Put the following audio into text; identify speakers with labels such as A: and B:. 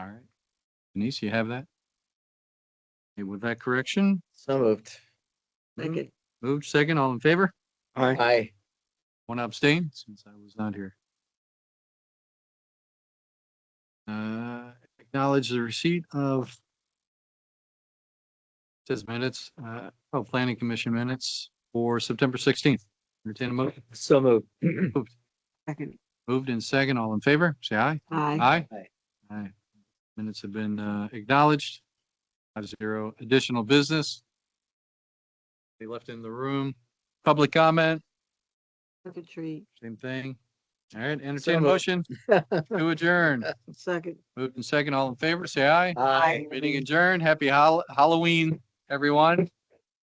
A: All right. Denise, you have that? Okay, with that correction,
B: So moved.
A: Second.
B: Second.
A: moved second, all in favor?
B: Aye.
A: One abstain since I was not here. Uh, acknowledge the receipt of says minutes, uh, oh, planning commission minutes for September sixteenth. Entertain a motion,
B: So moved.
C: Second.
A: moved in second, all in favor, say aye.
C: Aye.
A: Aye.
B: Aye.
A: Aye. Minutes have been uh, acknowledged. Five zero. Additional business. They left in the room. Public comment,
C: Secretary,
A: same thing. All right,
B: So
A: entertain a
B: moved.
A: motion to adjourn.
C: second.
A: Moved and second, all in favor, say aye.
B: Aye.
A: Meeting adjourned. Happy Hall- Halloween, everyone.